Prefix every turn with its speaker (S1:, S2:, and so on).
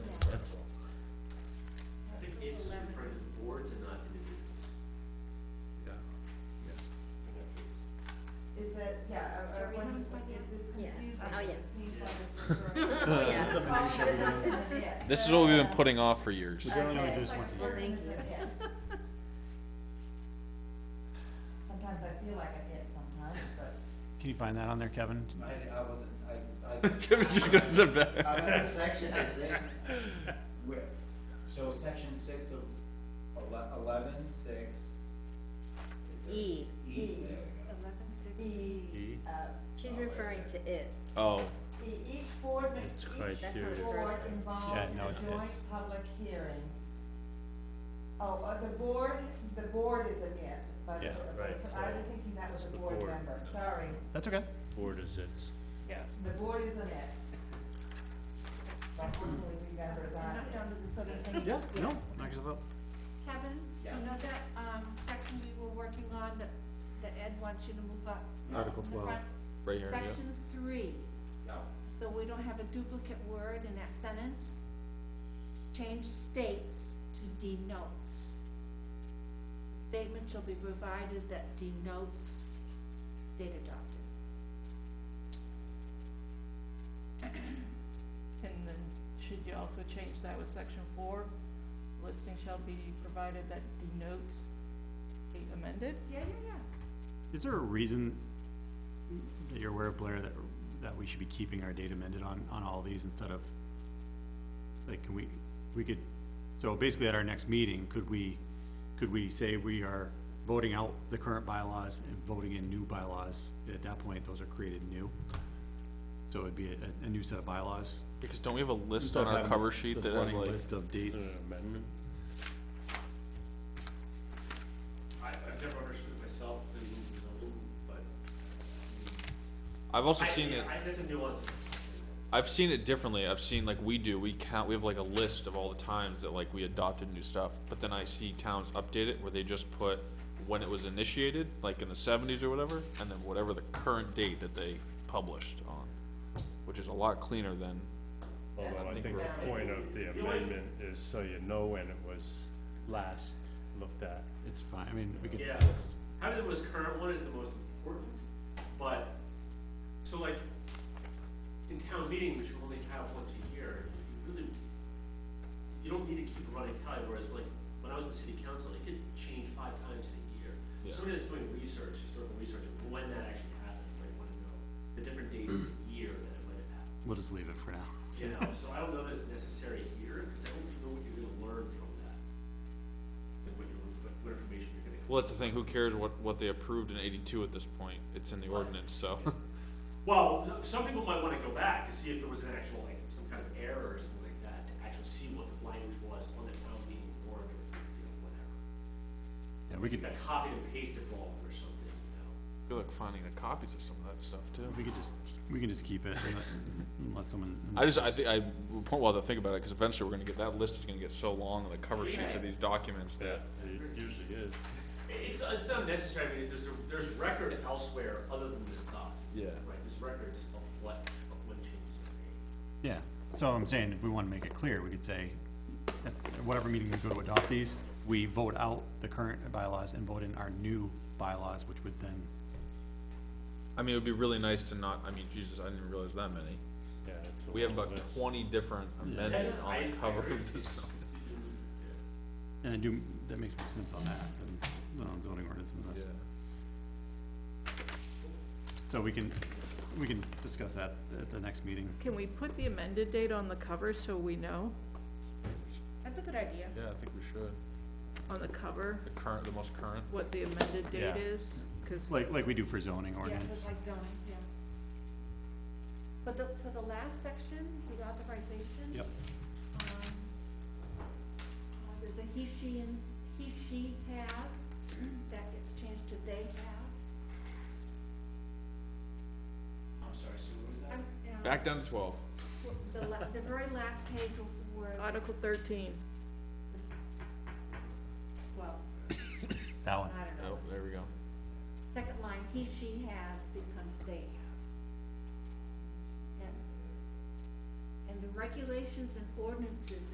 S1: Oh,
S2: niche every year.
S3: This is what we've been putting off for years.
S2: We generally only do this once a year.
S4: Thank you. Sometimes I feel like I did sometimes, but.
S2: Can you find that on there, Kevin?
S5: I, I wasn't, I, I.
S3: Kevin's just gonna sit back.
S5: I read a section of it, where, so section six of ele- eleven, six. is it?
S1: E.
S5: E, there we go.
S1: Eleven
S4: E, uh,
S1: She's referring to its.
S3: Oh,
S4: e- each board, ma-
S6: It's
S4: each
S6: criteria.
S4: board
S1: Yeah,
S4: involved in
S2: no,
S4: a
S2: it's-
S4: joint
S2: it's-
S4: public hearing. Oh, uh, the board, the board is an it, but
S2: Yeah.
S6: Right,
S4: I
S6: so
S4: was thinking that was
S6: it's
S4: a
S6: the
S4: board
S6: board.
S4: member, sorry.
S2: That's okay.
S6: Board is its.
S4: Yeah. The board is an it. But hopefully we members aren't.
S2: Yeah, no, knock yourself out.
S7: Kevin, you know that, um, section we were working on that, that Ed wants you to move up?
S2: Article
S7: in the
S2: 12.
S7: front?
S3: right here. yeah.
S7: Section three,
S5: Yeah.
S7: so we don't have a duplicate word in that sentence. Change states to denotes. Statement shall be provided that denotes date adopted.
S8: And then should you also change that with section four? Listing shall be provided that denotes the amended?
S7: Yeah, yeah, yeah.
S2: Is there a reason that you're aware of Blair that, that we should be keeping our date amended on, on all these instead of? Like, can we, we could, so basically at our next meeting, could we, could we say we are voting out the current bylaws and voting in new bylaws? And At that point, those are created new. So it'd be a, a new set of bylaws.
S3: Because don't we have a list
S2: Instead
S3: on
S2: of
S3: our
S2: having
S3: cover
S2: this-
S3: sheet
S2: this
S3: that has
S2: running
S3: like,
S2: List of dates.
S6: amendment?
S9: I, I've never understood myself the zoning, but. I
S3: I've also
S9: mean, I-
S3: seen it,
S9: I, that's a nuance.
S3: I've seen it differently. I've seen like we do, we count, we have like a list of all the times that like we adopted new stuff. But then I see towns update it where they just put when it was initiated, like in the seventies or whatever, and then whatever the current date that they published on, which is a lot cleaner than,
S6: Although I think the point of the amendment is so you know when it was last looked at.
S2: It's fine, I mean, we could.
S9: Yeah, having the most current one is the most important, but, so like, in town meeting, which you only have once a year, you really, you don't need to keep a running tally, whereas like, when I was in city council, it could change five times in a year.
S3: Yeah.
S9: Somebody that's doing research, historical research, of when that actually happened, might wanna know the different dates of the year that it might have happened.
S2: We'll just leave it for now.
S9: You know, so I don't know that it's necessary here, because I don't know what you're gonna learn from that. And what you're, what- what information you're gonna.
S3: well, that's the thing, who cares what, what they approved in eighty-two at this point? It's in the ordinance, so.
S9: Well, some people might wanna go back to see if there was an actual, like, some kind of error or something like that, to actually see what the language was on the town meeting board or, you know, whatever.
S2: Yeah, we could,
S9: Like copy and paste involved or something, you know?
S3: I feel like finding the copies of some of that stuff too.
S2: we could just, we can just keep it unless- unless someone.
S3: I just, I think, I, point well, to think about it, because eventually we're gonna get, that list is gonna get so long, and the cover sheets of these documents
S6: Yeah,
S3: that,
S6: it usually is.
S9: It's, it's not necessary, I mean, there's, there's record elsewhere other than this document.
S3: Yeah.
S9: Right, there's records of what, of when changes are made.
S2: Yeah, so I'm saying, if we wanna make it clear, we could say, at whatever meeting we go to adopt these, we vote out the current bylaws and vote in our new bylaws, which would then,
S3: I mean, it would be really nice to not, I mean, Jesus, I didn't realize that many.
S6: Yeah, it's a
S3: We have
S6: long
S3: about
S6: list.
S3: twenty different amendments
S9: Yeah, I-
S3: on the
S9: I
S3: cover
S9: agree.
S3: of this.
S2: and I do, that makes more sense on that than, than on zoning ordinance and
S3: Yeah.
S2: this. So we can, we can discuss that at the next meeting.
S8: Can we put the amended date on the cover so we know,
S7: That's a good idea.
S3: Yeah, I think we should.
S8: on the cover,
S3: The current, the most current.
S8: what the amended
S2: Yeah.
S8: date is? Cause
S2: Like, like we do for zoning
S7: Yeah, it's
S2: ordinance.
S7: like zoning, yeah. But the, for the last section, the authorization.
S2: Yep.
S7: Um, uh, there's a he, she, and he, she has, that gets changed to they have.
S5: I'm sorry, so what was that?
S7: I'm, s- um,
S3: Back down to twelve.
S7: w- The, la- the very last page where,
S8: Article thirteen,
S7: well,
S2: That
S7: I
S2: one,
S7: don't know.
S3: Oh, there we go.
S7: Second line, he, she has becomes they have. And, and the regulations and ordinances